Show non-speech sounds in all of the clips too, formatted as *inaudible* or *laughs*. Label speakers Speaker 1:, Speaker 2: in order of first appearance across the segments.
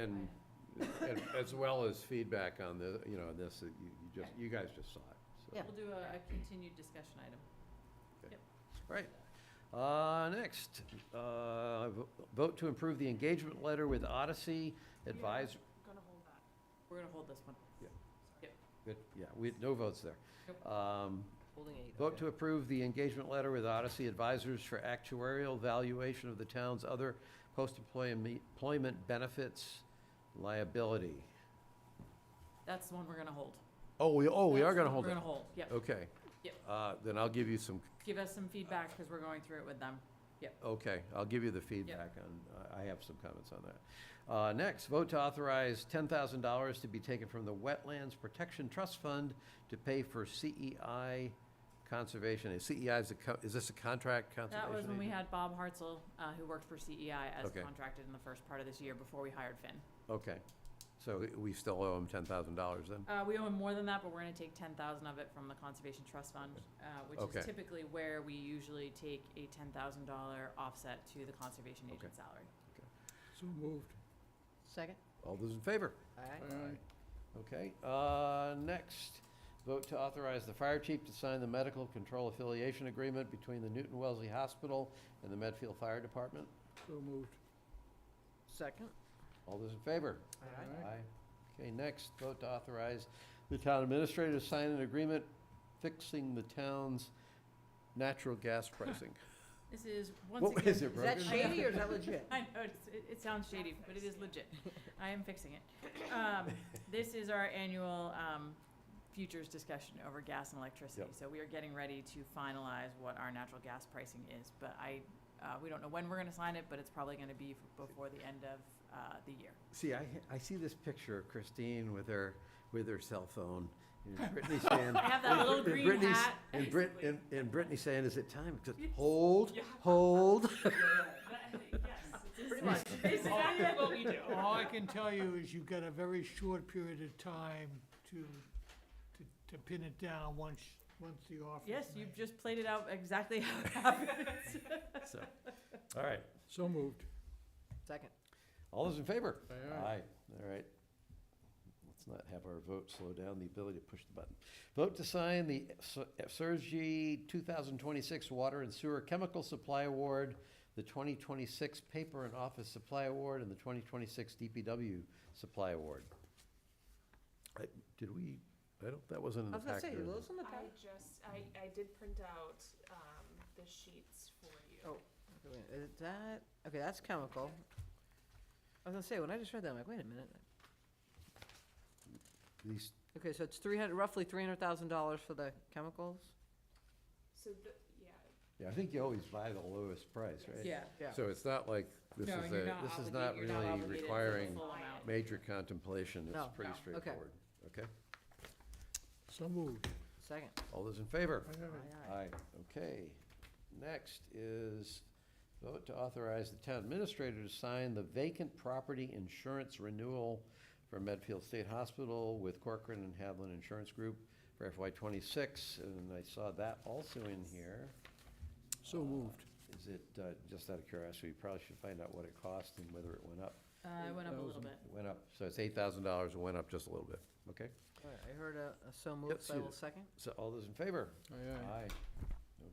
Speaker 1: And, and as well as feedback on the, you know, this, that you you just, you guys just saw it, so.
Speaker 2: We'll do a a continued discussion item.
Speaker 1: All right. Uh, next, uh, vo- vote to improve the engagement letter with Odyssey Advis,
Speaker 3: Gonna hold that.
Speaker 2: We're gonna hold this one,
Speaker 1: that- yeah, we, no votes there.
Speaker 2: Nope.
Speaker 1: Um,
Speaker 2: holding eight.
Speaker 1: Vote to approve the engagement letter with Odyssey Advisors for actuarial valuation of the town's other post-employment employment benefits liability.
Speaker 2: That's the one we're gonna hold.
Speaker 1: Oh, we, oh, we
Speaker 2: That's
Speaker 1: are
Speaker 2: the
Speaker 1: gonna
Speaker 2: one
Speaker 1: hold
Speaker 2: We're
Speaker 1: it.
Speaker 2: gonna hold, yep.
Speaker 1: Okay.
Speaker 2: Yep.
Speaker 1: Uh, then I'll give you some,
Speaker 2: Give us some feedback, because we're going through it with them.
Speaker 1: okay, I'll give you the feedback on, I I have some comments on that. Uh, next, vote to authorize ten thousand dollars to be taken from the Wetlands Protection Trust Fund to pay for CEI conservation. And CEI is a, co- is this a contract conservation
Speaker 2: That was when we
Speaker 1: agent?
Speaker 2: had Bob Hartzell, uh, who worked for CEI as
Speaker 1: Okay.
Speaker 2: contracted in the first part of this year before we hired Finn.
Speaker 1: Okay, so we still owe him ten thousand dollars then?
Speaker 2: Uh, we owe him more than that, but we're gonna take ten thousand of it from the Conservation Trust Fund, uh, which
Speaker 1: Okay.
Speaker 2: is typically where we usually take a ten thousand dollar offset to the conservation
Speaker 1: Okay.
Speaker 2: agent salary.
Speaker 4: So moved.
Speaker 3: Second?
Speaker 1: All those in favor?
Speaker 3: Aye.
Speaker 1: Okay, uh, next, vote to authorize the fire chief to sign the medical control affiliation agreement between the Newton Wellesley Hospital and the Medfield Fire Department.
Speaker 4: So moved.
Speaker 3: Second?
Speaker 1: All those in favor?
Speaker 4: Aye.
Speaker 1: Okay, next, vote to authorize the town administrator to sign an agreement fixing the town's natural
Speaker 2: *laughs*
Speaker 1: gas pricing.
Speaker 2: This is, once
Speaker 1: What
Speaker 2: again.
Speaker 1: is it,
Speaker 3: Is that
Speaker 1: Brogan?
Speaker 3: shady or is that legit? *laughs*
Speaker 2: I know, it's, it, it sounds shady, but it is legit. *laughs* I am fixing it. Um, this is our annual, um, futures discussion over gas and electricity.
Speaker 1: Yep.
Speaker 2: So we are getting ready to finalize what our natural gas pricing is, but I, uh, we don't know when we're gonna sign it, but it's probably gonna be f- before the end of, uh, the *laughs* year.
Speaker 1: See, I, I see this picture of Christine with her, with her cell phone, and Brittany saying.
Speaker 2: *laughs* I have that
Speaker 1: and-
Speaker 2: little
Speaker 1: and
Speaker 2: green
Speaker 1: Brittany's-
Speaker 2: hat.
Speaker 1: And Brit, and, and Brittany saying, is it time? Just
Speaker 2: Yes.
Speaker 1: Hold,
Speaker 2: *laughs* Yeah.
Speaker 1: hold.
Speaker 2: Pretty much. *laughs* It's exactly what we do.
Speaker 4: All I can tell you is you've got a very short period of time to, to, to pin it down once, once the offer.
Speaker 2: Yes, you've just played it out exactly how it happens.
Speaker 1: So, all right,
Speaker 4: So moved.
Speaker 3: Second.
Speaker 1: all those in favor?
Speaker 4: Aye, aye.
Speaker 1: All right. Let's not have our vote slow down the ability to push the button. Vote to sign the uh, Sur- Surgy 2026 Water and Sewer Chemical Supply Award, the 2026 Paper and Office Supply Award, and the 2026 DPW Supply Award. I- Did we, I don't, that wasn't in
Speaker 3: I
Speaker 1: the
Speaker 3: was gonna
Speaker 1: packet.
Speaker 3: say,
Speaker 1: or
Speaker 3: are
Speaker 1: not.
Speaker 3: those on the
Speaker 5: I
Speaker 3: package?
Speaker 5: just, I, I did print out, um, the sheets for you.
Speaker 3: Oh. Wait a minute, Is it that, okay, that's chemical. I was gonna say, when I just read that, I'm like, wait a minute.
Speaker 1: These,
Speaker 3: Okay, so it's three hundred, roughly three hundred thousand dollars for the chemicals?
Speaker 5: So the, yeah,
Speaker 1: yeah, I think you always buy the lowest price, right?
Speaker 2: Yeah.
Speaker 3: Yeah.
Speaker 1: So it's not like, this
Speaker 2: No,
Speaker 1: is
Speaker 2: you're
Speaker 1: a,
Speaker 2: not
Speaker 1: this is
Speaker 2: obligated-
Speaker 1: not
Speaker 2: you're not
Speaker 1: really
Speaker 2: obligated to the
Speaker 1: requiring
Speaker 2: full amount.
Speaker 1: major contemplation, it's
Speaker 3: No.
Speaker 1: pretty
Speaker 2: No. Okay.
Speaker 1: straightforward, okay?
Speaker 4: So moved.
Speaker 3: Second.
Speaker 1: All those in favor?
Speaker 3: Aye, aye.
Speaker 1: Aye. Okay. Next is vote to authorize the town administrator to sign the vacant property insurance renewal for Medfield State Hospital with Corcoran and Hadlin Insurance Group for FY twenty-six, and I saw that also in here.
Speaker 4: So moved.
Speaker 1: Is it, uh, just out of curiosity, we probably should find out what it cost and whether it went up.
Speaker 2: Uh, it went up a little bit.
Speaker 1: It went up, so it's eight thousand dollars, it went up just a little bit, okay?
Speaker 3: All right, I heard a, a so moved, so I
Speaker 1: see
Speaker 3: will
Speaker 1: that.
Speaker 3: second.
Speaker 1: So all those in favor?
Speaker 4: Aye,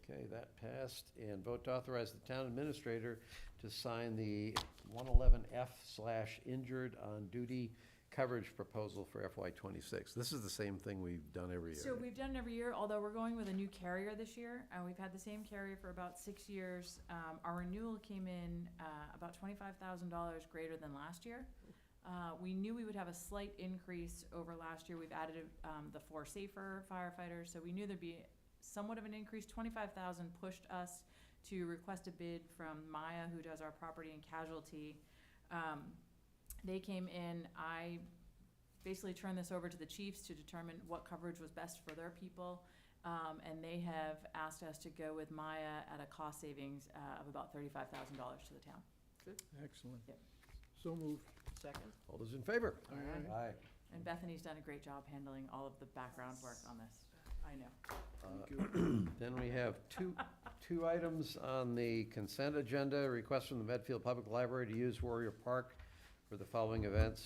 Speaker 1: Okay, that passed, and vote to authorize the town administrator to sign the one eleven F slash injured on duty coverage proposal for FY twenty-six. This is the same thing we've done every year.
Speaker 2: So we've done it every year, although we're going with a new carrier this year, and we've had the same carrier for about six years. Um, our renewal came in, uh, about twenty-five thousand dollars greater than last year. Uh, we knew we would have a slight increase over last year. We've added, um, the four safer firefighters, so we knew there'd be somewhat of an increase. Twenty-five thousand pushed us to request a bid from Maya, who does our property and casualty. Um, they came in, I basically turned this over to the chiefs to determine what coverage was best for their people. Um, and they have asked us to go with Maya at a cost savings, uh, of about thirty-five thousand dollars to the town.
Speaker 4: excellent.
Speaker 2: Yep.
Speaker 4: So moved.
Speaker 3: Second.
Speaker 1: All those in favor?
Speaker 4: Aye,
Speaker 3: Aye.
Speaker 1: Aye.
Speaker 2: And Bethany's done a great job handling all of the background work on this. I know.
Speaker 1: Uh,
Speaker 4: Thank you.
Speaker 1: Then we have two, two items on the consent agenda, request from the Medfield Public Library to use Warrior Park for the following events